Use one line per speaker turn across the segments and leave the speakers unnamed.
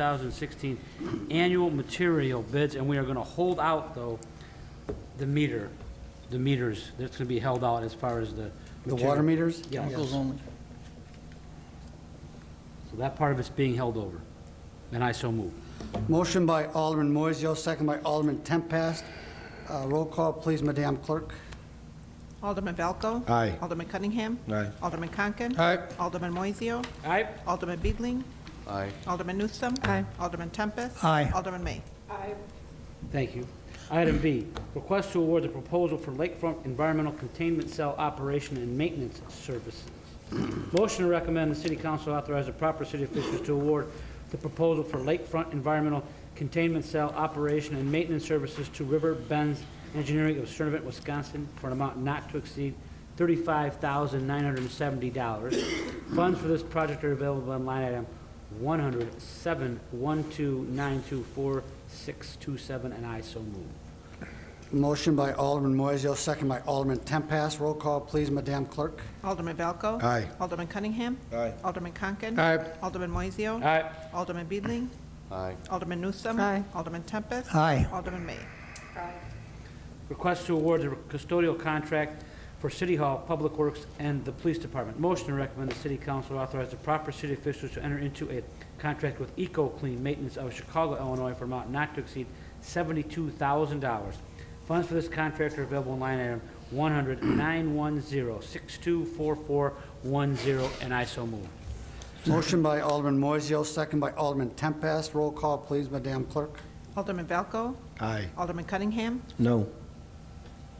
2016 annual material bids, and we are going to hold out, though, the meter, the meters, that's going to be held out as far as the.
The water
material.
meters?
Yeah.
Chemicals only.
So that part of it's being held over, and I so move.
Motion by Alderman Moiseo, second by Alderman Tempest. Uh, Roll call, please, Madam Clerk.
Alderman Valco.
Aye.
Alderman Cunningham.
Aye.
Alderman Conken.
Aye.
Alderman Moiseo.
All right,
Alderman Beedling.
Aye.
Alderman Newsome. Aye. Alderman Tempest.
Aye.
Alderman May.
thank you. Item B, request to award the proposal for Lakefront Environmental Containment Cell Operation and Maintenance Services. Motion to recommend the city council authorize the proper city officials to award the proposal for Lakefront Environmental Containment Cell Operation and Maintenance Services to River Benz Engineering of Cernivent, Wisconsin, for an amount not to exceed $35,970. Funds for this project are available on line item 107-12924-627, and I so move.
Motion by Alderman Moiseo, second by Alderman Tempest. Roll call, please, Madam Clerk.
Alderman Valco.
Aye.
Alderman Cunningham.
Aye.
Alderman Conken.
Aye.
Alderman Moiseo.
All right,
Alderman Beedling.
Aye.
Alderman Newsome. Aye. Alderman Tempest.
Aye.
Alderman May.
request to award the custodial contract for City Hall, Public Works, and the Police Department. Motion to recommend the city council authorize the proper city officials to enter into a contract with Eco Clean Maintenance of Chicago, Illinois, for an amount not to exceed $72,000. Funds for this contract are available in line item 100-910-624410, and I so move.
Motion by Alderman Moiseo, second by Alderman Tempest. Roll call, please, Madam Clerk.
Alderman Valco.
Aye.
Alderman Cunningham.
No.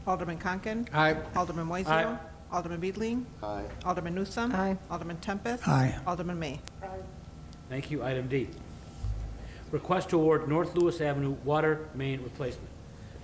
Alderman Conken.
Aye.
Alderman Moiseo.
Aye.
Alderman Beedling.
Aye.
Alderman Newsome.
Aye.
Alderman Tempest.
Aye.
Alderman May.
Thank you. Item D, request to award North Lewis Avenue water main replacement.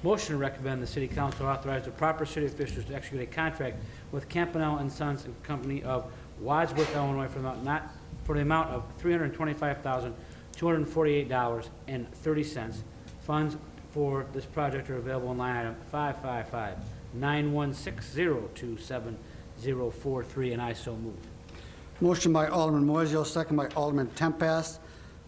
Motion to recommend the city council authorize the proper city officials to execute a contract with Campanell and Sons and Company of Wadsworth, Illinois, for the amount not, for the amount of three hundred and twenty-five thousand, two hundred and forty-eight dollars and thirty cents. Funds for this project are available in line item five-five-five-nine-one-six-zero-two-seven-zero-four-three, and I so move.
Motion by Alderman Moiseo, second by Alderman Tempest.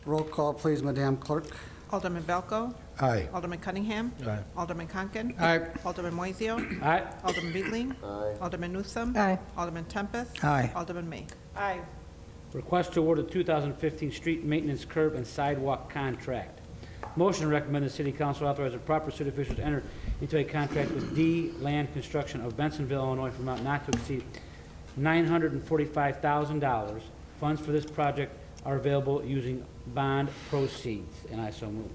Roll call, please, Madam Clerk.
Alderman Valco.
Aye.
Alderman Cunningham.
Aye.
Alderman Conken.
Aye.
Alderman Moiseo.
All right,
Alderman Beedling. Alderman Newsome.
Aye.
Alderman Tempest.
Aye.
Alderman May. Aye.
Request to award a 2015 street maintenance curb and sidewalk contract. Motion to recommend the city council authorize the proper city officials to enter into a contract with D Land Construction of Bensonville, Illinois, for amount not to exceed $945,000. Funds for this project are available using bond proceeds, and I so move.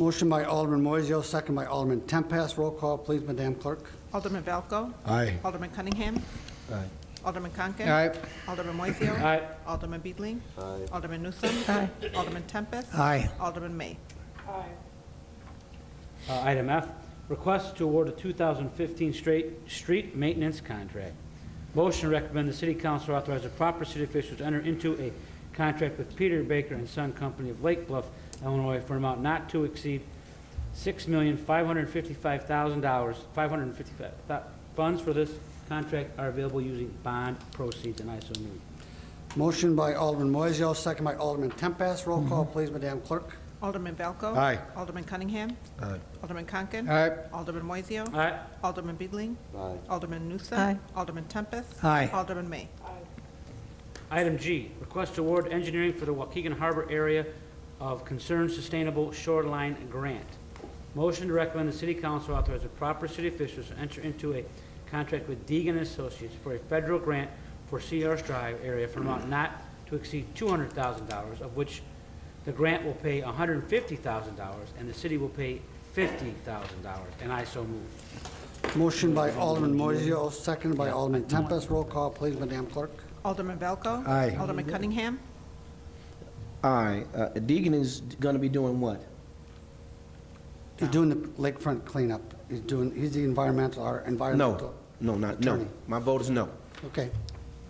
Motion by Alderman Moiseo, second by Alderman Tempest. Roll call, please, Madam Clerk.
Alderman Valco.
Aye.
Alderman Cunningham.
Aye.
Alderman Conken.
Aye.
Alderman Moiseo.
All right,
Alderman Beedling. Alderman Newsome.
Aye.
Alderman Tempest.
Aye.
Alderman May.
Uh, Item F, request to award a 2015 straight street maintenance contract. Motion to recommend the city council authorize the proper city officials to enter into a contract with Peter Baker and Son Company of Lake Bluff, Illinois, for an amount not to exceed $6,555,000, 555, thou- funds for this contract are available using bond proceeds, and I so move.
Motion by Alderman Moiseo, second by Alderman Tempest. Roll call, please, Madam Clerk.
Alderman Valco.
Aye.
Alderman Cunningham.
Aye.
Alderman Conken.
Aye.
Alderman Moiseo.
All right,
Alderman Beedling.
Aye.
Alderman Newsome.
Aye.
Alderman Tempest.
Aye.
Alderman May.
Item G, request to award engineering for the Waukegan Harbor Area of Concern Sustainable Shoreline Grant. Motion to recommend the city council authorize the proper city officials to enter into a contract with Deegan Associates for a federal grant for Cedar Drive area for an amount not to exceed two hundred thousand dollars, of which the grant will pay hundred and fifty thousand dollars, and the city will pay fifty thousand dollars, and I so move.
Motion by Alderman Moiseo, second by Alderman Tempest. Roll call, please, Madam Clerk.
Alderman Valco.
Aye.
Alderman Cunningham.
Alright, uh, Deegan is gonna be doing what?
He's doing the lakefront cleanup. He's doing, he's the environmental, our
No,
environmental.
no, not, no.
Attorney.
My vote is no.
Okay.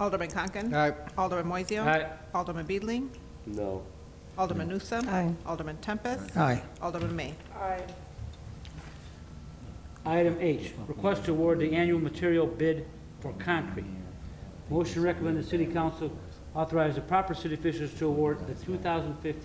Alderman Conken.
Aye.
Alderman Moiseo.
Aye.
Alderman Beedling.
No.
Alderman Newsome.
Aye.
Alderman Tempest.
Aye.
Alderman May.
Item H, request to award the annual material bid for concrete. Motion to recommend the city council authorize the proper city officials to award the 2015